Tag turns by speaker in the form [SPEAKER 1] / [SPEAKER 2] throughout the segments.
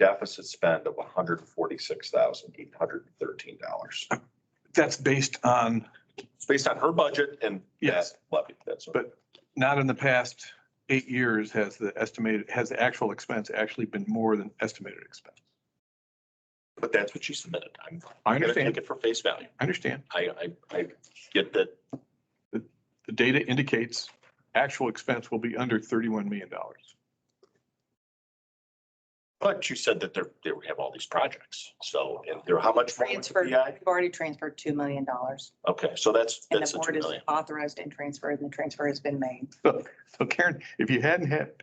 [SPEAKER 1] deficit spend of hundred and forty-six thousand, eight hundred and thirteen dollars.
[SPEAKER 2] That's based on,
[SPEAKER 1] It's based on her budget and
[SPEAKER 2] Yes.
[SPEAKER 1] that levy, that's.
[SPEAKER 2] But- not in the past eight years has the estimated, has the actual expense actually been more than estimated expense.
[SPEAKER 1] But that's what she submitted. I'm
[SPEAKER 2] I
[SPEAKER 1] gonna
[SPEAKER 2] understand,
[SPEAKER 1] take it for face value.
[SPEAKER 2] I understand.
[SPEAKER 1] I, I, I get that.
[SPEAKER 2] The data indicates actual expense will be under $31 million.
[SPEAKER 1] But you said that they're, they have all these projects. So, and they're, how much? more with the
[SPEAKER 3] Transfer, we've
[SPEAKER 1] PI?
[SPEAKER 3] already transferred two million dollars
[SPEAKER 1] Okay, so that's,
[SPEAKER 3] and
[SPEAKER 1] that's
[SPEAKER 3] the
[SPEAKER 1] a two
[SPEAKER 3] board is
[SPEAKER 1] million.
[SPEAKER 3] authorized and transferred and the transfer has been made.
[SPEAKER 2] So Karen, if you hadn't had,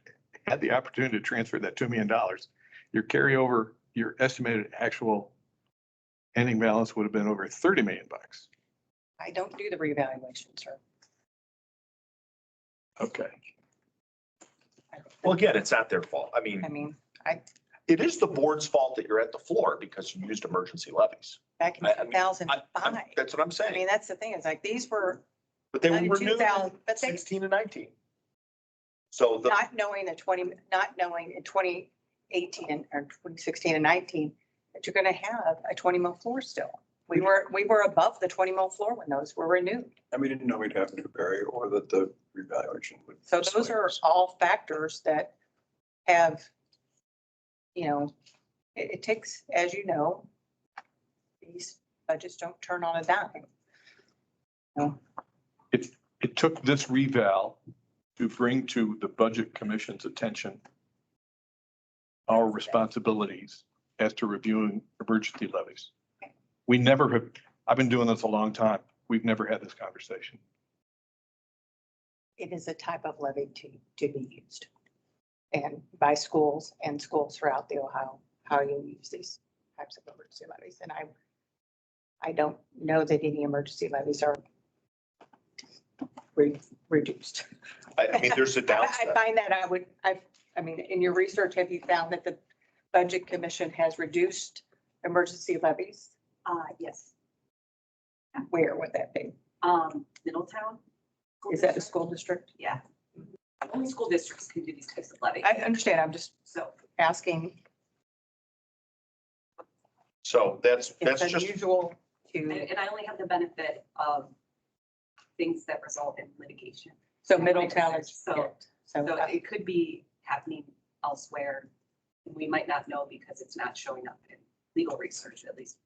[SPEAKER 2] had the opportunity to transfer that $2 million, your carryover, your estimated actual ending balance would have been over 30 million bucks.
[SPEAKER 3] I don't do the revaluation, sir.
[SPEAKER 2] Okay.
[SPEAKER 1] Well, again, it's not their fault. I
[SPEAKER 3] I
[SPEAKER 1] mean,
[SPEAKER 3] mean,
[SPEAKER 1] it is the board's fault that you're at the floor because you used emergency levies.
[SPEAKER 3] back in
[SPEAKER 1] I- I
[SPEAKER 3] two
[SPEAKER 1] mean,
[SPEAKER 3] thousand
[SPEAKER 1] I- I'm-
[SPEAKER 3] five,
[SPEAKER 1] That's what I'm
[SPEAKER 3] I mean,
[SPEAKER 1] saying.
[SPEAKER 3] that's the thing, it's like, these were
[SPEAKER 1] But they were
[SPEAKER 3] ninety-two
[SPEAKER 1] renewed in
[SPEAKER 3] thousand, but they,
[SPEAKER 1] sixteen and nineteen. So the,
[SPEAKER 3] not knowing the twenty, not knowing in twenty eighteen and, or twenty sixteen and nineteen, that you're gonna have a twenty mil floor still. We were, we were above the twenty mil floor when those were renewed.
[SPEAKER 4] And we didn't know we'd have to bury or that the revaluation would.
[SPEAKER 3] So those are all factors that have, you know, it, it takes, as you know, these budgets don't turn on a dime.
[SPEAKER 2] It took this reval to bring to the Budget Commission's attention our responsibilities as to reviewing emergency levies. We never have, I've been doing this a long time. We've never had this conversation.
[SPEAKER 3] It is a type of levy to, to be used. And by schools and schools throughout the Ohio, how you use these types of emergency levies. And I, I don't know that any emergency levies are re- reduced.
[SPEAKER 1] I, I mean, there's a
[SPEAKER 3] I I
[SPEAKER 1] downside.
[SPEAKER 3] find that I would, I, I mean, in your research, have you found that the Budget Commission has reduced emergency levies?
[SPEAKER 5] Uh, yes,
[SPEAKER 3] Where would that be?
[SPEAKER 5] um, Middletown. school
[SPEAKER 3] Is that a
[SPEAKER 5] district,
[SPEAKER 3] school district?
[SPEAKER 5] Yeah. Only school districts can do these types of levy,
[SPEAKER 3] I understand, I'm just
[SPEAKER 5] so.
[SPEAKER 3] asking,
[SPEAKER 1] So that's, that's
[SPEAKER 3] it's
[SPEAKER 1] just,
[SPEAKER 3] unusual
[SPEAKER 5] And,
[SPEAKER 3] to,
[SPEAKER 5] and I only have the benefit of things that result in litigation.
[SPEAKER 3] so Middletown is.
[SPEAKER 5] So-
[SPEAKER 3] yeah, So,
[SPEAKER 5] So
[SPEAKER 3] uh,
[SPEAKER 5] it could be happening elsewhere. and We might not know because it's not showing up in legal research, at least.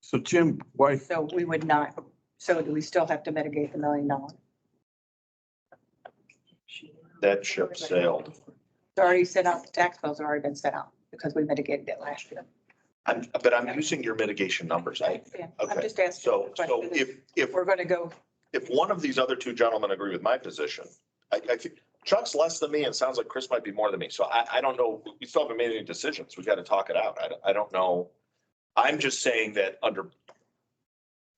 [SPEAKER 4] So Jim, why,
[SPEAKER 3] so we would not, so do we still have to mitigate the million dollars?
[SPEAKER 1] that ship sailed.
[SPEAKER 3] It's already set out, the tax bills have already been set out because we mitigated it last year.
[SPEAKER 1] I'm, but I'm using your mitigation numbers. I,
[SPEAKER 3] understand.
[SPEAKER 1] okay.
[SPEAKER 3] I'm just asking.
[SPEAKER 1] so,
[SPEAKER 3] the
[SPEAKER 1] so
[SPEAKER 3] question.
[SPEAKER 1] if, if,
[SPEAKER 3] We're going to go,
[SPEAKER 1] if one of these other two gentlemen agree with my position, I, I think Chuck's less than me and it sounds like Chris might be more than me. So I, I don't know. We still haven't made any decisions. We've got to talk it out. I, don't- I don't know. I'm just saying that under,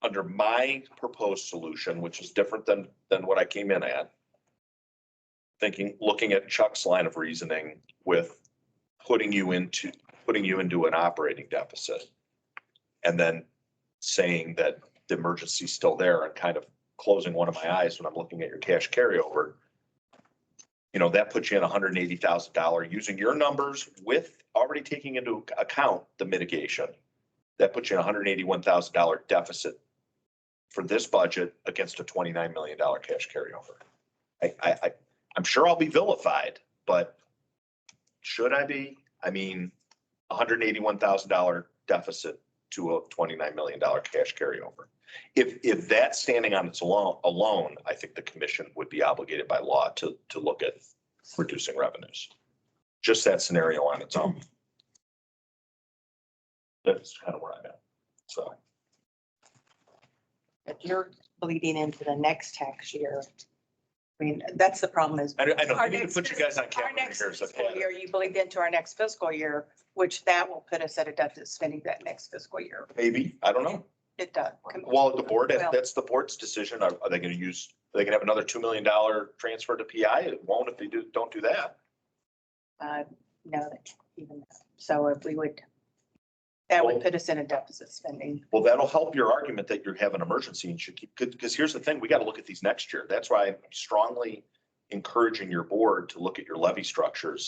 [SPEAKER 1] under my proposed solution, which is different than, than what I came in at, thinking, looking at Chuck's line of reasoning with putting you into, putting you into an operating deficit. And then saying that the emergency's still there and kind of closing one of my eyes when I'm looking at your cash carryover. You know, that puts you in hundred and eighty thousand dollar, using your numbers with already taking into account the mitigation. That puts you in hundred and eighty-one thousand dollar deficit for this budget against a twenty-nine million dollar cash carryover. I, I, I, I'm sure I'll be vilified, but should I be? I mean, hundred and eighty-one thousand dollar deficit to a twenty-nine million dollar cash carryover. If, if that's standing on its alone, alone, I think the commission would be obligated by law to, to look at reducing revenues. Just that scenario on its own. That's kind of where I'm at. So,
[SPEAKER 3] if you're bleeding into the next tax year, I mean, that's the problem is.
[SPEAKER 1] I, I know, I
[SPEAKER 3] Our
[SPEAKER 1] need to
[SPEAKER 3] next
[SPEAKER 1] put you guys on
[SPEAKER 3] Our
[SPEAKER 1] camera
[SPEAKER 3] next
[SPEAKER 1] here. so-
[SPEAKER 3] fiscal year, you bleed into our next fiscal year, which that will put us at a deficit spending that next fiscal year.
[SPEAKER 1] Maybe, I don't know.
[SPEAKER 3] It does.
[SPEAKER 1] Well, the board,
[SPEAKER 3] Well-
[SPEAKER 1] that's the board's decision. Are, are they going to use, are they going to have another $2 million transfer to PI? It won't if they do, don't do that.
[SPEAKER 3] Uh, No, that even, that. so if we would, that would put us in a deficit spending.
[SPEAKER 1] Well, that'll help your argument that you have an emergency and should keep, because here's the thing, we got to look at these next year. That's why I'm strongly encouraging your board to look at your levy structures